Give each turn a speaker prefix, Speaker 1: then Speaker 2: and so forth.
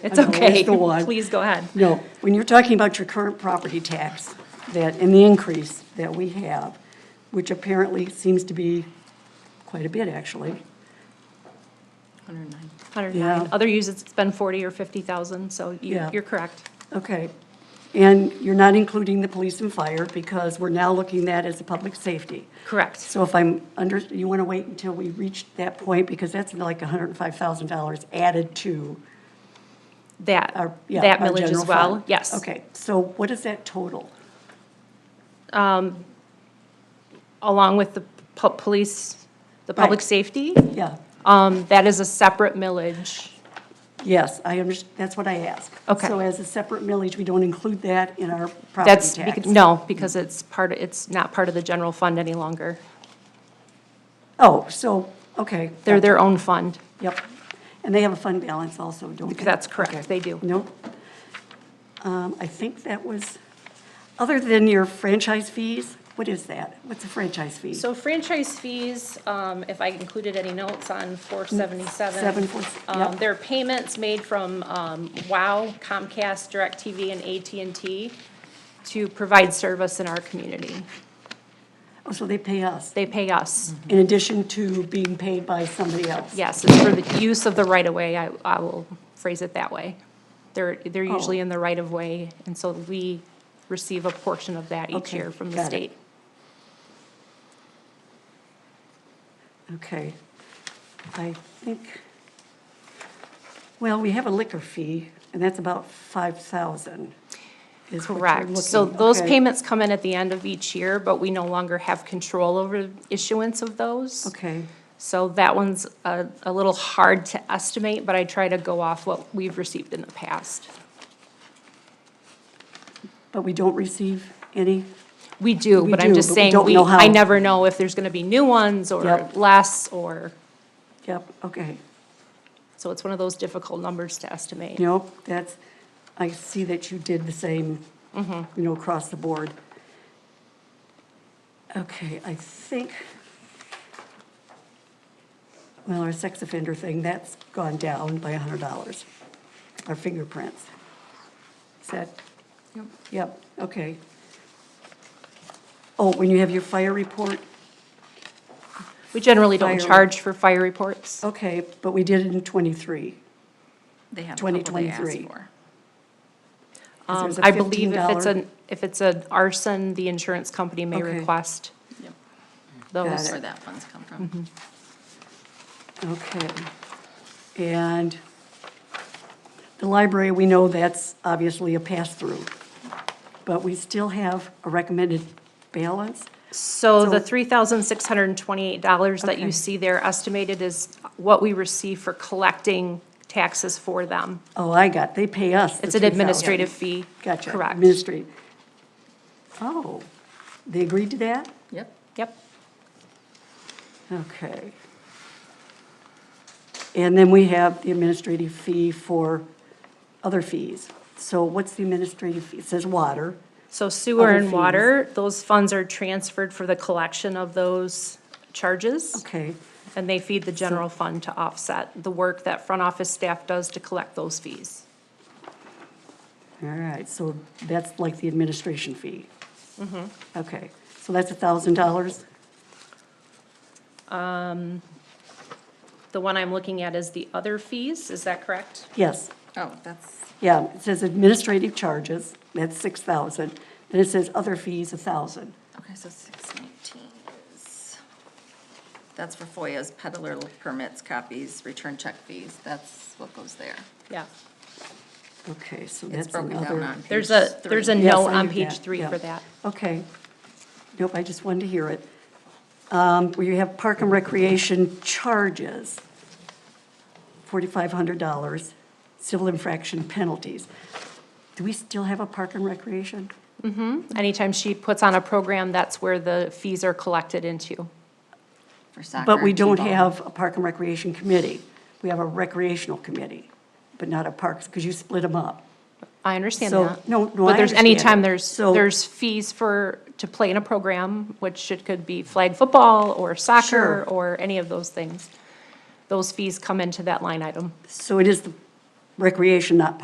Speaker 1: It's
Speaker 2: I know, that's
Speaker 1: okay.
Speaker 2: the one.
Speaker 1: Please go ahead.
Speaker 2: No, when you're talking about your current property tax, that, and the increase that we have, which apparently seems to be quite a bit, actually.
Speaker 1: 109.
Speaker 2: Yeah.
Speaker 1: 109. Other uses, it's been 40 or 50,000, so you-
Speaker 2: Yeah.
Speaker 1: you're correct.
Speaker 2: Okay. And you're not including the police and fire because we're now looking at as a public safety.
Speaker 1: Correct.
Speaker 2: So if I'm under, you want to wait until we reach that point because that's like $105,000 added to
Speaker 1: That,
Speaker 2: our, yeah,
Speaker 1: that
Speaker 2: our
Speaker 1: millage as
Speaker 2: general
Speaker 1: well,
Speaker 2: fund.
Speaker 1: yes.
Speaker 2: Okay, so what is that total?
Speaker 1: Along with the pu- police, the public
Speaker 2: Right.
Speaker 1: safety,
Speaker 2: Yeah,
Speaker 1: um, that is a separate millage.
Speaker 2: yes, I understand, that's what I asked.
Speaker 1: Okay.
Speaker 2: So as a separate millage, we don't include that in our property
Speaker 1: That's,
Speaker 2: tax?
Speaker 1: bec- no, because it's part, of it's not part of the general fund any longer.
Speaker 2: Oh, so, okay.
Speaker 1: They're their own fund.
Speaker 2: Yep. And they have a fund balance also, don't they?
Speaker 1: That's correct,
Speaker 2: Okay.
Speaker 1: they do.
Speaker 2: Nope. Um, I think that was, other than your franchise fees, what is that? What's a franchise fee?
Speaker 1: So franchise fees, um, if I included any notes on four seventy-seven.
Speaker 2: Seven four-
Speaker 1: Um,
Speaker 2: yep.
Speaker 1: there are payments made from, um, WOW, Comcast, DirecTV, and AT&T to provide service in our community.
Speaker 2: Oh, so they pay us,
Speaker 1: They pay us.
Speaker 2: in addition to being paid by somebody else?
Speaker 1: Yes, it's for the use of the right-of-way, I, I will phrase it that way. They're, they're
Speaker 2: Oh.
Speaker 1: usually in the right-of-way, and so we receive a portion of that each
Speaker 2: Okay,
Speaker 1: year from the
Speaker 2: got it.
Speaker 1: state.
Speaker 2: Okay. I think, well, we have a liquor fee, and that's about 5,000 is what you're
Speaker 1: Correct. So
Speaker 2: looking-
Speaker 1: those
Speaker 2: okay.
Speaker 1: payments come in at the end of each year, but we no longer have control over issuance of those.
Speaker 2: Okay,
Speaker 1: So that one's a, a little hard to estimate, but I try to go off what we've received in the past.
Speaker 2: but we don't receive any?
Speaker 1: We do,
Speaker 2: We
Speaker 1: but I'm
Speaker 2: do,
Speaker 1: just
Speaker 2: but we
Speaker 1: saying,
Speaker 2: don't
Speaker 1: we,
Speaker 2: know how.
Speaker 1: I never know if there's gonna be new ones or
Speaker 2: Yep.
Speaker 1: less or,
Speaker 2: Yep, okay.
Speaker 1: so it's one of those difficult numbers to estimate.
Speaker 2: Nope, that's, I see that you did the same,
Speaker 1: Mm-hmm.
Speaker 2: you know, across the board. Okay, I think, well, our sex offender thing, that's gone down by $100, our fingerprints. Is that? Yep. Yep, okay. Oh, when you have your fire report,
Speaker 1: We generally don't
Speaker 2: Fire- Oh,
Speaker 1: charge for fire reports.
Speaker 2: okay, but we did it in '23.
Speaker 3: They have a couple they asked
Speaker 2: 2023.
Speaker 3: for.
Speaker 1: Um,
Speaker 2: there's a
Speaker 1: I believe if it's
Speaker 2: $15
Speaker 1: an, if it's an arson, the insurance company may
Speaker 2: Okay.
Speaker 1: request
Speaker 3: Yep,
Speaker 1: those.
Speaker 3: That's where that funds come
Speaker 2: Mm-hmm.
Speaker 3: from.
Speaker 2: Okay. And the library, we know that's obviously a pass-through, but we still have a recommended balance?
Speaker 1: So the
Speaker 2: So-
Speaker 1: three thousand six hundred and twenty-eight dollars that you
Speaker 2: Okay.
Speaker 1: see there estimated is what we receive for collecting taxes for them.
Speaker 2: Oh, I got, they pay us the
Speaker 1: It's an
Speaker 2: 3,000.
Speaker 1: administrative fee.
Speaker 2: Gotcha.
Speaker 1: Correct.
Speaker 2: Administrative. Oh, they agreed to that?
Speaker 3: Yep.
Speaker 1: Yep.
Speaker 2: Okay. And then we have the administrative fee for other fees. So what's the administrative fee? It says water.
Speaker 1: So sewer
Speaker 2: Other
Speaker 1: and
Speaker 2: fees.
Speaker 1: water, those funds are transferred for the collection of those charges.
Speaker 2: Okay,
Speaker 1: And they feed the general fund to offset the work that front office staff does to collect those fees.
Speaker 2: all right, so that's like the administration fee.
Speaker 1: Mm-hmm.
Speaker 2: Okay, so that's a thousand dollars?
Speaker 1: The one I'm looking at is the other fees, is that correct?
Speaker 2: Yes,
Speaker 3: Oh, that's,
Speaker 2: yeah, it says administrative charges, that's six thousand. Then it says other fees, a thousand.
Speaker 3: okay, so six nineteen is, that's for FOIA's peddler permits, copies, return check fees. That's what goes there.
Speaker 1: Yeah.
Speaker 2: Okay, so
Speaker 3: It's
Speaker 2: that's
Speaker 3: broken down
Speaker 2: another.
Speaker 3: on page
Speaker 1: There's a, there's a
Speaker 3: three.
Speaker 2: Yes,
Speaker 1: note
Speaker 2: I
Speaker 1: on
Speaker 2: knew
Speaker 1: page
Speaker 2: that,
Speaker 1: three
Speaker 2: yeah.
Speaker 1: for that.
Speaker 2: Okay. Nope, I just wanted to hear it. Um, where you have park and recreation charges, forty-five hundred dollars, civil infraction penalties. Do we still have a park and recreation?
Speaker 1: Anytime she puts on a program, that's where the fees are collected into.
Speaker 3: For soccer.
Speaker 2: But we
Speaker 3: and
Speaker 2: don't
Speaker 3: t-ball.
Speaker 2: have a Park and Recreation Committee. We have a recreational committee, but not a Parks, because you split them up.
Speaker 1: I understand
Speaker 2: So,
Speaker 1: that.
Speaker 2: no, no, I
Speaker 1: But there's,
Speaker 2: understand it.
Speaker 1: anytime there's,
Speaker 2: So-
Speaker 1: there's fees for, to play in a program, which it could be flag football or soccer
Speaker 2: Sure.
Speaker 1: or any of those things. Those fees come into that line item.
Speaker 2: So it is the recreation, not